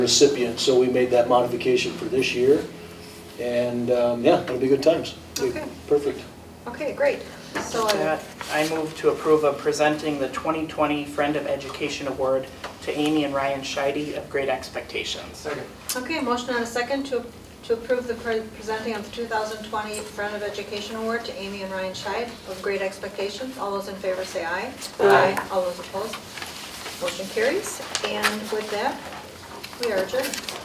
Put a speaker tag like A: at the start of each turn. A: recipient, so we made that modification for this year. And, um, yeah, it'll be good times.
B: Okay.
A: Perfect.
B: Okay, great. So
C: With
B: I
C: that, I move to approve of presenting the 2020 Friend of Education Award to Amy and Ryan Scheide of Great Expectations.
B: Okay, motion and a second to, to approve the pre- presenting of the 2020 Friend of Education Award to Amy and Ryan Scheid of Great Expectations. All those in favor say aye.
C: Aye.
B: All those opposed? Motion carries. And with that, we are adjourned.